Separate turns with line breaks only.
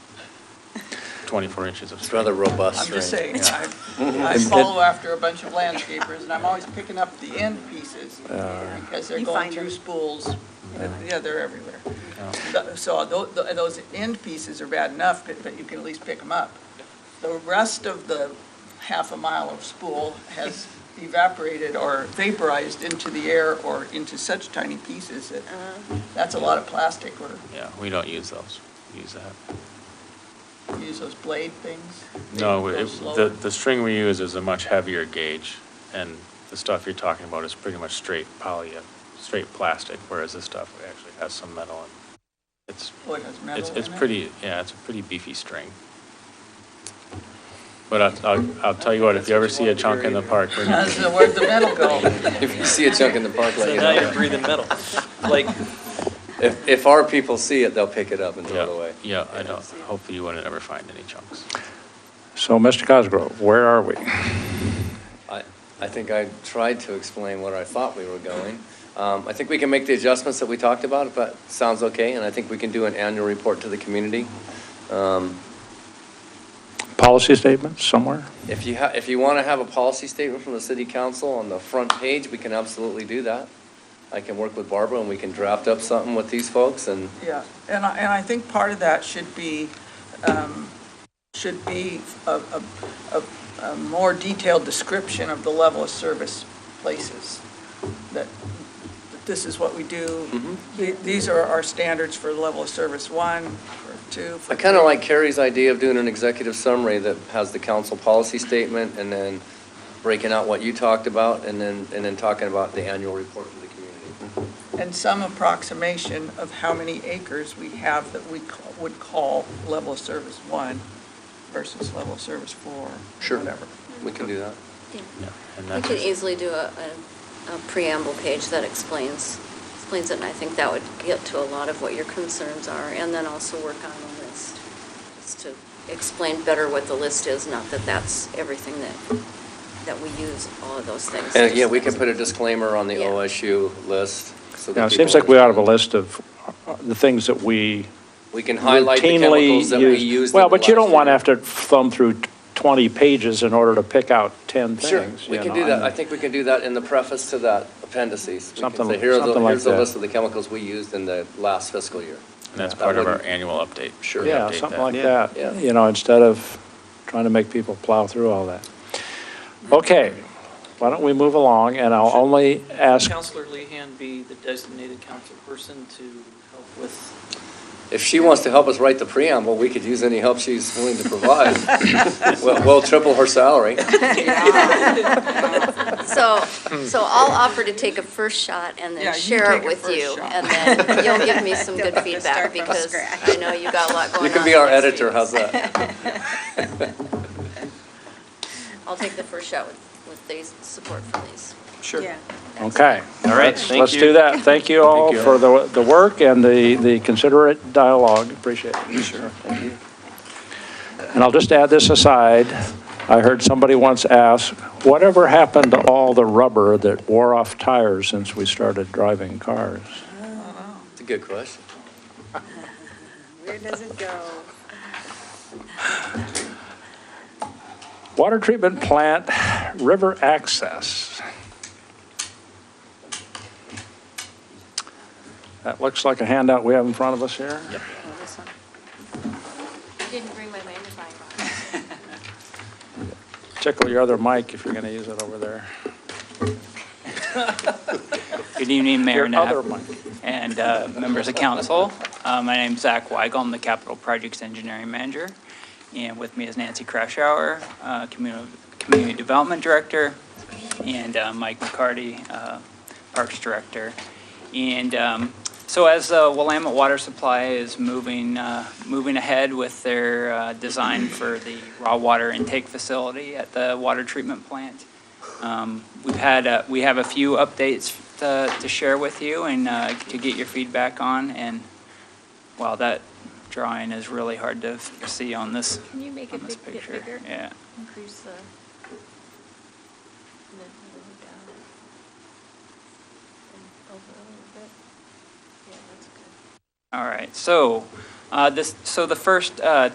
24 inches of
It's
string.
rather robust.
I'm just saying,
Yeah.
I, I follow after a bunch of landscapers, and I'm always picking up the end pieces,
Uh,
because they're
You
going
find them.
through spools, yeah, they're everywhere.
Yeah.
Th- So tho- tho- those end pieces are bad enough, but but you can at least pick them up. The rest of the half a mile of spool has evaporated or vaporized into the air or into such tiny pieces that,
Uh-huh.
that's a lot of plastic, or
Yeah, we don't use those, We use that.
you use those blade things. they
No,
go
it-
slower.
the, the string we use is a much heavier gauge, and the stuff you're talking about is pretty much straight poly, straight plastic, whereas this stuff actually has some metal and it's,
Oh, it has metal
it's, it's
in it?
pretty, yeah, it's a pretty beefy string. But I'll, I'll, I'll tell you what, if you ever see a chunk in the park, we're not-
That's the- Where'd the metal go?
If you see a chunk in the park, let
So
you
now you're
know.
breathing metal. Like,
If, if our people see it, they'll pick it up and throw it
yeah,
away.
yeah, I don't, hopefully you wouldn't ever find any chunks.
So, Mr. Cosgrove, where are we?
I, I think I tried to explain where I thought we were going. Um, I think we can make the adjustments that we talked about, if that sounds okay, and I think we can do an annual report to the community. Um,
Policy statements somewhere?
If you ha, if you want to have a policy statement from the city council on the front page, we can absolutely do that. I can work with Barbara and we can draft up something with these folks and
Yeah, and I, and I think part of that should be, um, should be a, a, a- a more detailed description of the level of service places, that that this is what we do,
Mm-hmm.
The- these are our standards for level of service one, for two, for
I kind of
three.
like Carrie's idea of doing an executive summary that has the council policy statement and then breaking out what you talked about and then, and then talking about the annual report to the community.
And some approximation of how many acres we have that we ca- would call level of service one versus level of service four,
Sure.
whatever.
We can do that.
Yeah, and
We
that's-
could easily do a, a- a preamble page that explains, explains it, and I think that would get to a lot of what your concerns are, and then also work on the list, just to explain better what the list is, not that that's everything that, that we use, all of those things.
And yeah, we can put a disclaimer on the
Yeah.
OSU list. so that
Now, it
people
seems like we ought to have a
understand.
list of uh, the things that we
We can highlight the
routinely
chemicals that we
use.
used.
Well,
in the
but you don't
last
want to
year.
have to thumb through t- 20 pages in order to pick out 10
Sure,
things.
we
you
can
know,
do that.
mean,
I think we can do that in the preface to that appendices. We can
Something-
say, here are the-
something like
Here's the
that.
list of the chemicals we used in the last fiscal year.
And that's
That
part of our
wouldn't-
annual update.
Sure.
We
Yeah,
update
something
that.
like
Yeah.
Yeah.
that, you know, instead of trying to make people plow through all that. Okay, why don't we move along, and I'll only ask,
Counselor Lehan be the designated council person to help with,
If she wants to help us write the preamble, we could use any help she's willing to provide. We'll we'll triple her salary.
So, so I'll offer to take a first shot and
Yeah,
then
you
share
take
it
a
with
first
you,
shot.
and then you'll give me some good
Don't have to
feedback,
start from
because
scratch.
I know you got a lot going on.
You could be our
next
editor,
week.
how's that?
I'll take the first shot with, with these, support for these.
Sure.
Yeah.
okay.
All right,
let's-
thank
Let's
you.
do that. Thank you all
Thank you.
for the, the work and the, the considerate dialogue, appreciate it. Sure, thank you. And I'll just add this aside, I heard somebody once ask, whatever happened to all the rubber that wore off tires since we started driving cars?
It's a good question.
Where does it go?
Water treatment plant, river access. That looks like a handout we have in front of us here.
I didn't bring my magnifying glass.
Tickle your other mic if you're going to use it over there.
Good evening, Mayor
Your other
Knapp
mic.
and uh, members of council. Uh, My name's Zach Weigel, I'm the Capital Projects Engineering Manager, and with me is Nancy Krashauer, uh, Community Community Development Director, and uh, Mike McCarty, uh, Parks Director. And um, so as the Willamette Water Supply is moving, uh, moving ahead with their uh, design for the raw water intake facility at the water treatment plant, um, We've had, uh, we have a few updates uh, to to share with you and uh, to get your feedback on, and wow, that drawing is really hard to f- see on this,
Can you make
on this picture. Yeah,
Increase the.
all right, so, uh, this, so the first uh,